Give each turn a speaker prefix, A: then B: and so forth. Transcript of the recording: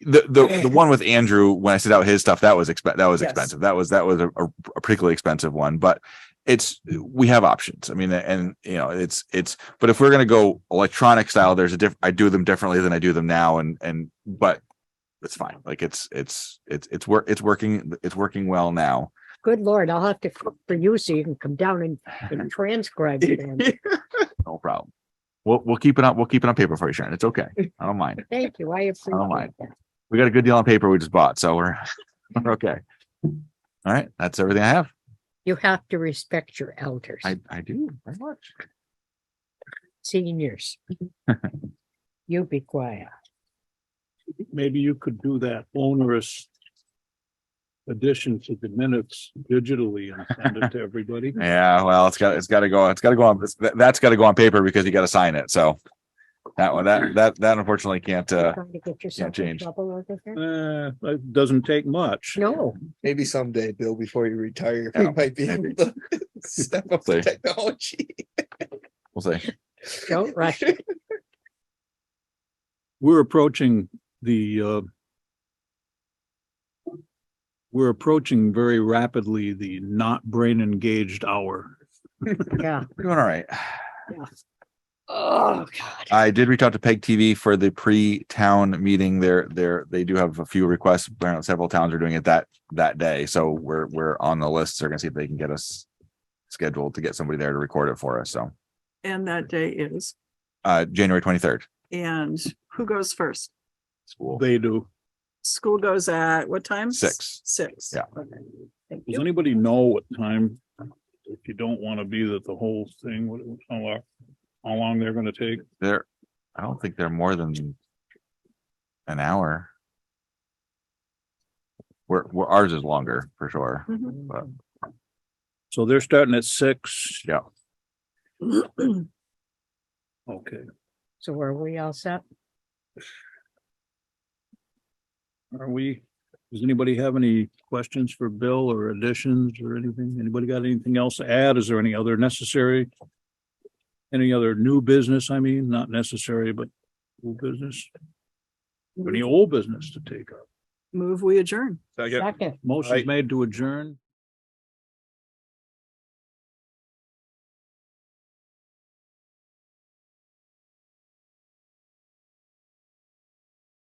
A: the the, the one with Andrew when I set out his stuff that was exp- that was
B: Yes.
A: expensive. That was that was a, a particularly expensive one, but it's we have options. I mean, and you know, it's it's. But if we're gonna go electronic style, there's a diff. I do them differently than I do them now, and and but it's fine. Like it's it's it's it's work. It's working. It's working well now.
C: Good Lord, I'll have to cook for you so you can come down and- and transcribe it. then.
A: no problem. We'll we'll keep it on. We'll keep it on paper for you, Sharon. It's okay. I don't mind.
C: Thank you. I
A: mind.
C: appreciate that.
A: we got a good deal on paper we just bought, so we're we're okay. All right, that's everything I have.
C: You have to respect your elders,
A: I I do very much.
C: seniors. You be quiet.
D: maybe you could do that onerous addition to the minutes digitally and send it to everybody.
A: Yeah, well, it's got it's got to go. It's got to go on. it's- that- That's got to go on paper because you got to sign it. So that one, that that that unfortunately can't. uh
C: Trying to get yourself in
A: change.
C: trouble over here?
D: Uh, it doesn't take much.
C: No,
E: Maybe someday, Bill, before you retire, you
A: Yeah,
E: might be able
A: maybe.
E: to step up
A: Say.
E: the technology.
A: We'll see.
C: don't rush. it.
D: We're approaching the uh we're approaching very rapidly the not brain engaged hour.
C: Yeah.
A: We're doing all right.
C: Oh, God.
A: I did reach out to Peg TV for the pre-town meeting. They're they're they do have a few requests. Apparently, Several towns are doing it that that day, so we're we're on the list. They're gonna see if they can get us scheduled to get somebody there to record it for us. So
F: And that day is,
A: uh January twenty third.
F: and who goes first?
A: School.
D: They do.
F: School goes at what time?
A: Six.
F: Six.
A: Yeah.
F: Okay. Thank
D: Does
F: you.
D: anybody know what time? If you don't want to be that the whole thing, what, how long, how long they're gonna take?
A: They're, I don't think they're more than an hour. Where, where ours is longer for sure.
F: Mhm.
D: So they're starting at six?
A: Yeah.
F: Mm-hmm.
D: Okay.
C: So are we all set?
D: Are we, does anybody have any questions for Bill or additions or anything? Anybody got anything else to add? Is there any other necessary? Any other new business? I mean, not necessary, but new business? Any old business to take up?
F: Move, we adjourn.
C: Second.
D: Motion's
E: Right.
D: made to adjourn.